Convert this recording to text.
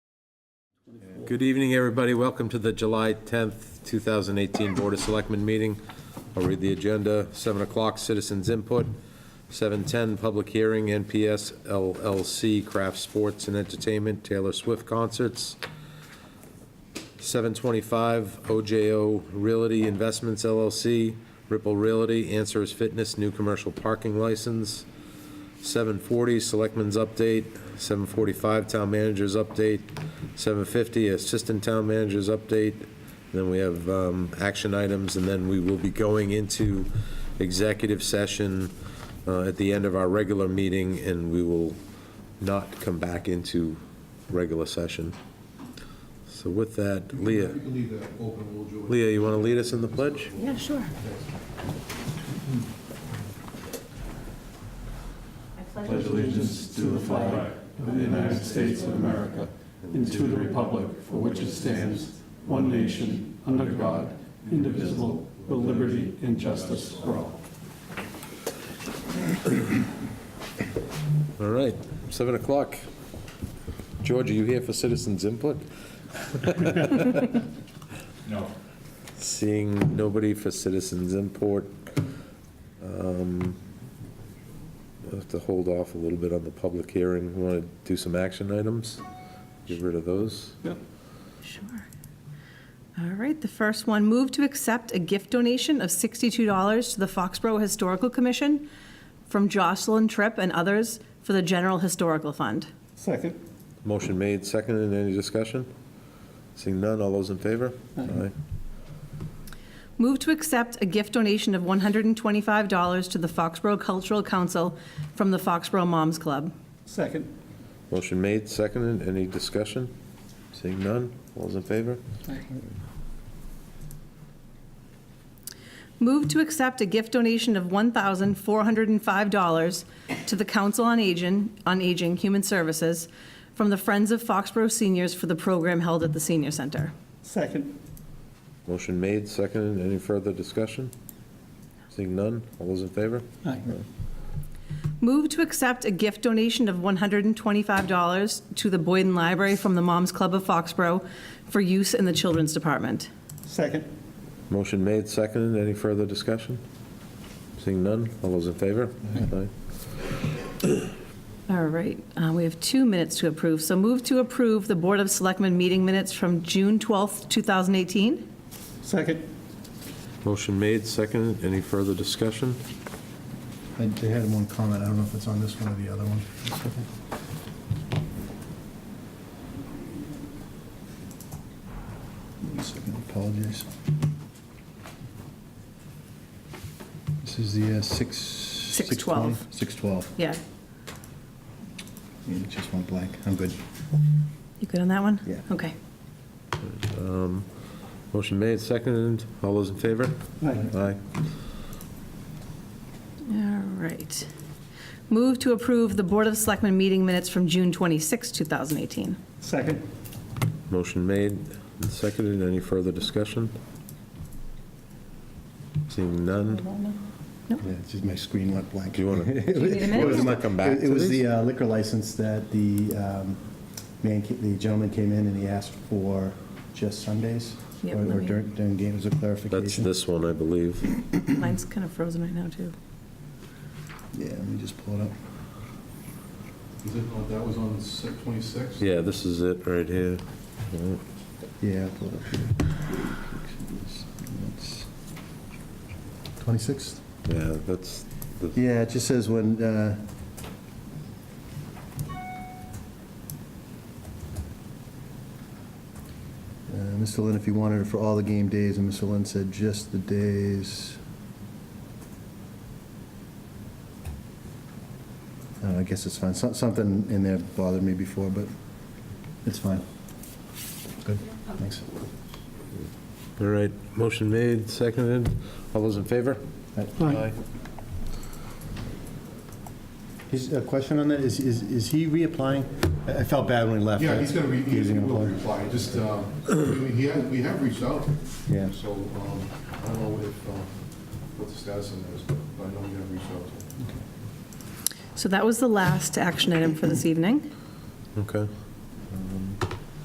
Good evening, everybody. Welcome to the July 10th, 2018 Board of Selectmen meeting. I'll read the agenda. 7 o'clock, citizens input. 7:10, public hearing, NPS LLC Craft Sports and Entertainment, Taylor Swift concerts. 7:25, OJO Realty Investments LLC, Ripple Realty, Answers Fitness, new commercial parking license. 7:40, Selectmen's Update, 7:45, Town Manager's Update, 7:50, Assistant Town Manager's Update, then we have um, action items, and then we will be going into executive session uh, at the end of our regular meeting, and we will not come back into regular session. So with that, Leah, We can leave that open, we'll do it. Leah, you want to lead us in the pledge? Yeah, sure. pledge allegiance to the flag of the United States of America and to the republic for which it stands, one nation, under God, indivisible, with liberty and justice for all. All right, 7 o'clock. George, are you here for citizens' input? No. Seeing nobody for citizens import. um, We'll have to hold off a little bit on the public hearing. We Want to do some action items? Get rid of those? Sure. All right, the first one, move to accept a gift donation of $62 to the Foxborough Historical Commission from Jocelyn Tripp and others for the General Historical Fund. Second. Motion made, seconded, any discussion? Seeing none, all those in favor? Aye. Move to accept a gift donation of $125 to the Foxborough Cultural Council from the Foxborough Moms Club. Second. Motion made, seconded, any discussion? Seeing none, all those in favor? Move to accept a gift donation of $1,405 to the Council on Aging, on Aging Human Services from the Friends of Foxborough Seniors for the program held at the Senior Center. Second. Motion made, seconded, any further discussion? Seeing none, all those in favor? Aye. Move to accept a gift donation of $125 to the Boyden Library from the Moms Club of Foxborough for use in the Children's Department. Second. Motion made, seconded. Any further discussion? Seeing none, all those in favor? Aye. All right, uh, we have two minutes to approve. So move to approve the Board of Selectmen meeting minutes from June 12th, 2018. Second. Motion made, seconded. Any further discussion? I they had one comment, I don't know if it's on this one or the other one. One second, apologies. This is the uh, six. 12. 612, Yeah, Yeah, it just went blank, I'm good. you good on that one? Yeah. Okay. Motion made, seconded. All those in favor? Aye. Aye. All right. Move to approve the Board of Selectmen meeting minutes from June 26, 2018. Second. Motion made, and seconded. Any further discussion? Seeing none. Yeah, it's just my screen went blank. Do you want to? Do you need a It was minute? my- Come back it- to It was these? the uh, liquor license that the um, man, ca- the gentleman came in and he asked for just Sundays or Yep, let or me- during during games of That's clarification. this one, I believe. Mine's kind of frozen right now, too. Yeah, let me just pull it up. Is it, oh, that was on the twenty-sixth? Yeah, this is it right here. Yeah, I'll pull it up here. 26th? Yeah, that's, the- Yeah, it just says when, uh, uh, Mr. Lynn, if you wanted it for all the game days, and Mr. Lynn said just the days. Uh, I guess it's fine. So- Something in there bothered me before, but it's fine. Good, thanks. all right. Motion made, seconded. All those in favor? All right. He's, a question on that, is, is, is he reapplying? I I felt bad when he left. Yeah, he's gonna, re- he's He's he gonna will apply. reply, just, uh, I mean, he had- we have reached out. Yeah. So, um, I don't know if, um, what the status on that is, but I know we have reached out to him. So that was the last action item for this evening. Okay.